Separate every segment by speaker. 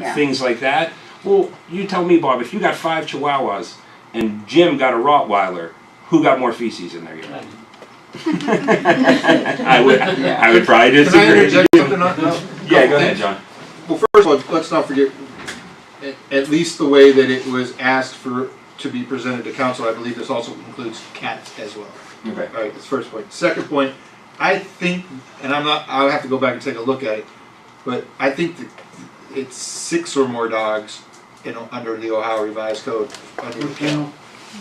Speaker 1: Yeah.
Speaker 2: things like that. Well, you tell me, Bob, if you got five Chihuahuas and Jim got a Rottweiler, who got more feces in their urine? I would, I would probably
Speaker 3: Can I
Speaker 2: disagree.
Speaker 3: interject something on- no?
Speaker 2: Yeah, go ahead, John.
Speaker 3: Well, first of all, let's not forget, at, at least the way that it was asked for, to be presented to council, I believe this also includes cats as well.
Speaker 2: Okay.
Speaker 3: All right, that's first point. Second point, I think, and I'm not, I'll have to go back and take a look at it, but I think that it's six or more dogs in, under the Ohio Revised Code, under the kennel.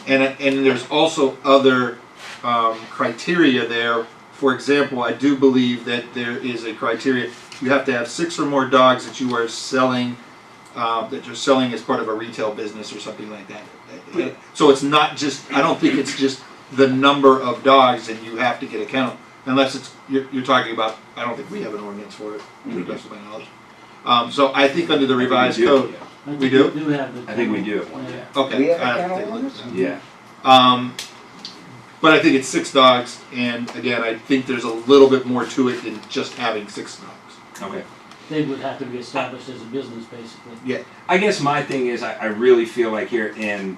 Speaker 3: And, and there's also other, um, criteria there. For example, I do believe that there is a criteria, you have to have six or more dogs that you are selling, uh, that you're selling as part of a retail business or something like that. So it's not just, I don't think it's just the number of dogs and you have to get a kennel, unless it's, you're, you're talking about, I don't think we have an ordinance for it, to the best of my knowledge. Um, so I think under the
Speaker 2: we
Speaker 3: revised
Speaker 2: do.
Speaker 3: code, we do?
Speaker 4: Do have the.
Speaker 2: I think we do have one, yeah.
Speaker 3: okay.
Speaker 1: We have a
Speaker 3: I to
Speaker 1: kennel
Speaker 3: take look at
Speaker 1: ordinance?
Speaker 3: that.
Speaker 2: Yeah.
Speaker 3: Um, but I think it's six dogs, and again, I think there's a little bit more to it than just having six dogs.
Speaker 2: Okay.
Speaker 4: They would have to be established as a business, basically.
Speaker 3: Yeah.
Speaker 2: I guess my thing is, I, I really feel like here, and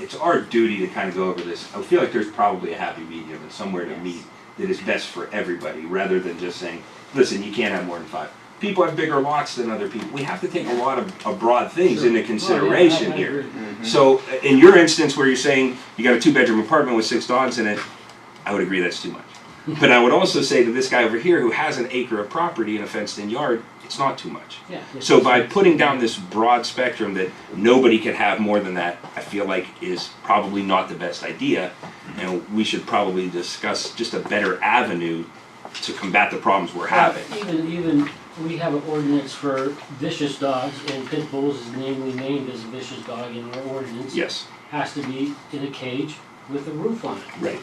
Speaker 2: it's our duty to kind of go over this. I feel like there's probably a happy medium and somewhere to
Speaker 4: Yes.
Speaker 2: meet that is best for everybody, rather than just saying, listen, you can't have more than five. People have bigger lots than other people. We have to take a lot of, of broad things into consideration here. So, uh, in your instance where you're saying you got a two bedroom apartment with six dogs in it, I would agree that's too much. But I would also say to this guy over here who has an acre of property and a fenced in yard, it's not too much.
Speaker 4: Yeah.
Speaker 2: So, by putting down this broad spectrum that nobody could have more than that, I feel like is probably not the best idea. And we should probably discuss just a better avenue to combat the problems we're having.
Speaker 4: Even, even, we have an ordinance for vicious dogs, and pit bulls is namely named as a vicious dog in our ordinance.
Speaker 2: Yes,
Speaker 4: Has to be in a cage with a roof on it,
Speaker 2: right.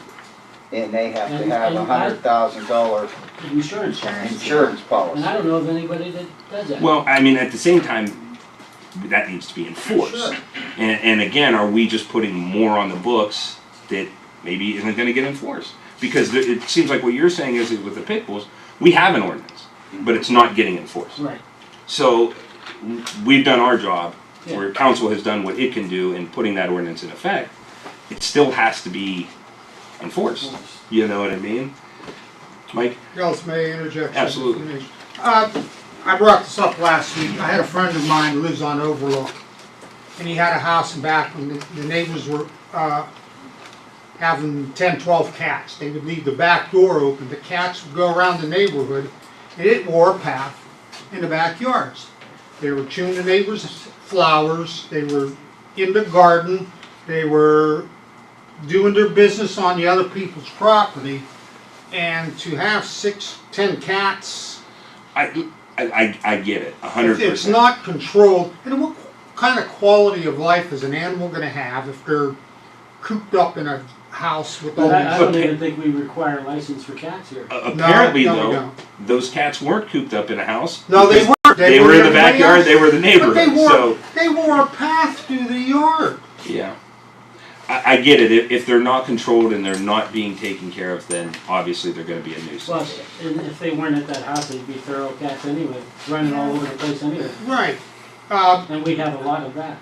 Speaker 1: And they have to
Speaker 4: And-
Speaker 1: have
Speaker 4: and
Speaker 1: a
Speaker 4: I-
Speaker 1: hundred thousand dollar
Speaker 4: an insurance policy.
Speaker 1: insurance
Speaker 4: And
Speaker 1: policy.
Speaker 4: I don't know of anybody that does that.
Speaker 2: Well, I mean, at the same time, that needs to be enforced.
Speaker 4: Sure.
Speaker 2: And, and again, are we just putting more on the books that maybe isn't going to get enforced? Because there, it seems like what you're saying is that with the pit bulls, we have an ordinance, but it's not getting enforced.
Speaker 4: Right,
Speaker 2: So w- we've done our job, where
Speaker 4: Yeah.
Speaker 2: council has done what it can do in putting that ordinance in effect. It still has to be enforced.
Speaker 4: Enforced.
Speaker 5: Mm-hmm.
Speaker 2: You know what I mean? Mike?
Speaker 5: else may I interject? something?
Speaker 2: Absolutely.
Speaker 5: Uh, I brought this up last week. I had a friend of mine who lives on Overlook, and he had a house in back when the the neighbors were uh, having 10, 12 cats. They would leave the back door open. The cats would go around the neighborhood, and it wore a path in the backyards. They were chewing the neighbors' flowers. They were in the garden. They were doing their business on the other people's property. And to have six, ten cats,
Speaker 2: I, I, I I get it, a hundred
Speaker 5: if
Speaker 2: percent.
Speaker 5: it's not controlled, and what kind of quality of life is an animal gonna have if they're cooped up in a house with all
Speaker 4: but I, I
Speaker 5: these?
Speaker 4: don't even think we require a license for cats here.
Speaker 2: Uh,
Speaker 5: No,
Speaker 2: apparently,
Speaker 5: no, we
Speaker 2: though,
Speaker 5: don't.
Speaker 2: those cats weren't cooped up in a house.
Speaker 5: No, they
Speaker 2: because
Speaker 5: weren't.
Speaker 2: They, were in the
Speaker 5: everybody
Speaker 2: backyard.
Speaker 5: else.
Speaker 2: They were the
Speaker 5: But they
Speaker 2: neighborhood.
Speaker 5: wore,
Speaker 2: So
Speaker 5: they wore a path through the yard.
Speaker 2: yeah, I, I get it. If, if they're not controlled and they're not being taken care of, then obviously they're going to be a nuisance.
Speaker 4: Plus, and if they weren't at that house, they'd be feral cats anyway, running all over the place anyway,
Speaker 5: Right. Uh,
Speaker 4: and we have a lot of that.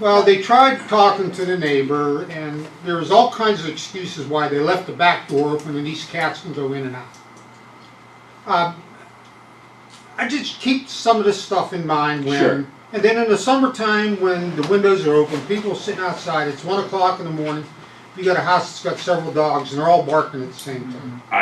Speaker 5: Well, they tried talking to the neighbor, and there was all kinds of excuses why they left the back door open and these cats can go in and out. Um, I just keep some of this stuff in mind when,
Speaker 2: Sure.
Speaker 5: and then in the summertime when the windows are open, people are sitting outside. It's one o'clock in the morning. You got a house that's got several dogs, and they're all barking at the same
Speaker 2: Mm-hmm.
Speaker 5: time.
Speaker 2: I,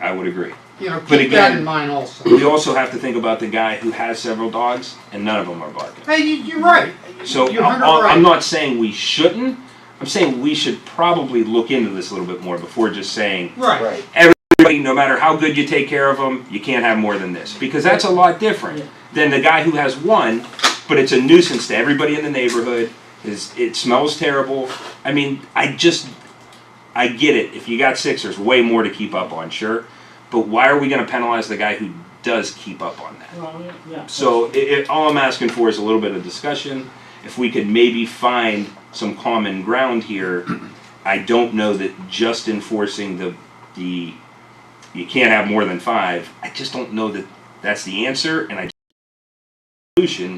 Speaker 2: I, I would agree.
Speaker 5: You know, keep
Speaker 2: But
Speaker 5: that
Speaker 2: again-
Speaker 5: in mind also.
Speaker 2: We also have to think about the guy who has several dogs and none of them are barking.
Speaker 5: Hey, you, you're right.
Speaker 2: So
Speaker 5: You're
Speaker 2: I'm,
Speaker 5: 100% right.
Speaker 2: I'm not saying we shouldn't. I'm saying we should probably look into this a little bit more before just saying
Speaker 5: Right.
Speaker 1: Right.
Speaker 2: everybody, no matter how good you take care of them, you can't have more than this because that's a lot different
Speaker 4: Yeah.
Speaker 2: than the guy who has one, but it's a nuisance to everybody in the neighborhood. Is it smells terrible? I mean, I just, I get it. If you got six, there's way more to keep up on, sure, but why are we going to penalize the guy who does keep up on that?
Speaker 4: Well, yeah, yeah.
Speaker 2: So it, it, all I'm asking for is a little bit of discussion. If we could maybe find some common ground here, I don't know that just enforcing the, the, you can't have more than five, I just don't know that that's the answer, and I solution